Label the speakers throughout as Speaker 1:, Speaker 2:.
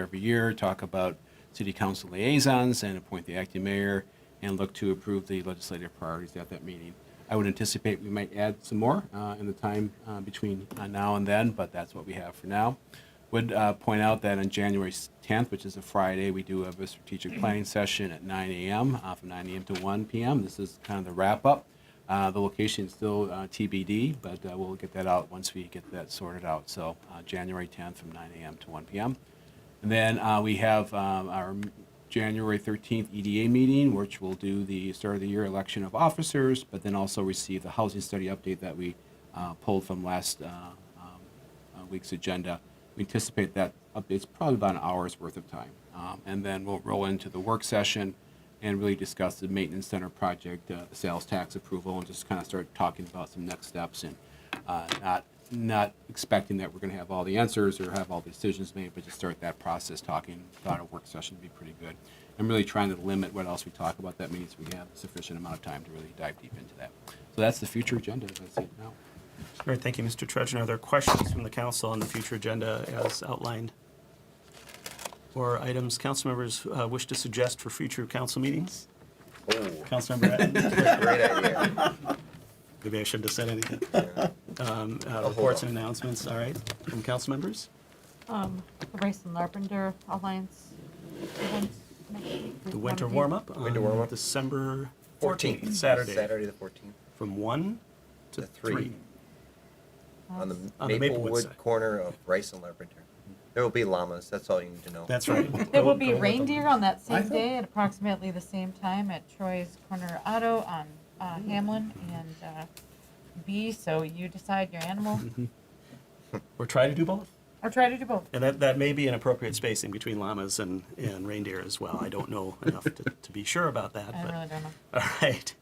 Speaker 1: every year, talk about city council liaisons and appoint the acting mayor and look to approve the legislative priorities at that meeting. I would anticipate we might add some more uh, in the time uh, between uh, now and then, but that's what we have for now. Would uh, point out that on January 10th, which is a Friday, we do have a strategic planning session at 9 a.m., uh, from 9 a.m. to 1 p.m. This is kind of the wrap-up. Uh, The location is still uh, TBD, but uh, we'll get that out once we get that sorted out. So uh, January 10th from 9 a.m. to 1 p.m. And then uh, we have um, our January 13th EDA meeting, which will do the start of the year election of officers, but then also receive the housing study update that we uh, pulled from last uh, um, uh, week's agenda. We anticipate that update's probably about an hour's worth of time. Um, And then we'll roll into the work session and really discuss the maintenance center project, uh, the sales tax approval, and just kind of start talking about some next steps and uh, not, not expecting that we're going to have all the answers or have all the decisions made, but just start that process talking about a work session would be pretty good. I'm really trying to limit what else we talk about. That means we have sufficient amount of time to really dive deep into that. So that's the future agenda as I see it now.
Speaker 2: All right, thank you, Mr. Trudgeon. Are there questions from the council on the future agenda as outlined? Or items council members uh, wish to suggest for future council meetings?
Speaker 3: Oh,
Speaker 2: Councilmember Atten?
Speaker 3: great idea.
Speaker 2: Maybe I shouldn't have said anything. Um, uh, Reports
Speaker 3: on.
Speaker 2: and announcements, all right, from council members?
Speaker 4: The Race um, and Larpenter Alliance event next week.
Speaker 2: The winter warm-up
Speaker 3: Winter
Speaker 2: on
Speaker 3: warm-up.
Speaker 2: December 14th, Saturday,
Speaker 3: Saturday the fourteenth.
Speaker 2: from 1 to
Speaker 3: To three.
Speaker 2: 3.
Speaker 3: On the
Speaker 2: On the Maplewood
Speaker 3: Maplewood
Speaker 2: side.
Speaker 3: corner of Rice and Carpenter. There will be llamas, that's all you need to know.
Speaker 2: That's right.
Speaker 4: There
Speaker 2: Go-
Speaker 4: will
Speaker 2: go
Speaker 4: be
Speaker 2: with them.
Speaker 4: reindeer on that
Speaker 5: I
Speaker 4: same
Speaker 5: thought-
Speaker 4: day at approximately the same time at Troy's Corner Auto on uh, Hamlin and uh, B, so you decide your animal,
Speaker 2: We're trying to do both.
Speaker 4: or try to do both.
Speaker 2: And that, that may be an appropriate spacing between llamas and, and reindeer as well. I don't know enough to, to be sure about that.
Speaker 4: I
Speaker 2: but-
Speaker 4: really don't know.
Speaker 2: All right.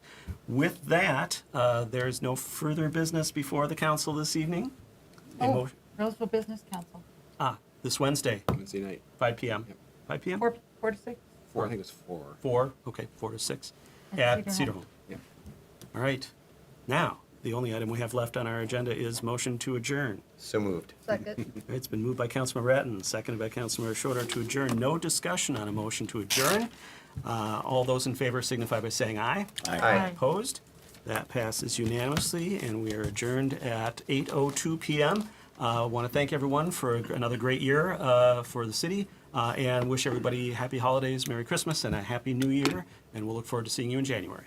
Speaker 2: With that, uh, there is no further business before the council this evening. A
Speaker 4: Oh,
Speaker 2: mo-
Speaker 4: Roseville Business Council,
Speaker 2: Ah, this Wednesday,
Speaker 1: Wednesday night,
Speaker 2: 5 p.m.
Speaker 1: Yep.
Speaker 2: 5 p.m.?
Speaker 4: four, four to six.
Speaker 1: four, I think it was four.
Speaker 2: Four, okay, four to six
Speaker 4: At
Speaker 2: at
Speaker 4: Cedar
Speaker 2: Cedar
Speaker 4: Home.
Speaker 2: Home.
Speaker 1: Yeah.
Speaker 2: All right. Now, the only item we have left on our agenda is motion to adjourn.
Speaker 3: So moved.
Speaker 2: All right, It's been moved by Councilmember Ratten, seconded by Councilmember Shorter to adjourn. No discussion on a motion to adjourn. Uh, All those in favor signify by saying aye.
Speaker 4: Aye.
Speaker 2: Opposed? That passes unanimously, and we are adjourned at 8:02 PM. I want to Uh, thank everyone for another great year uh, for the city, uh, and wish everybody happy holidays, Merry Christmas, and a happy New Year, and we'll look forward to seeing you in January.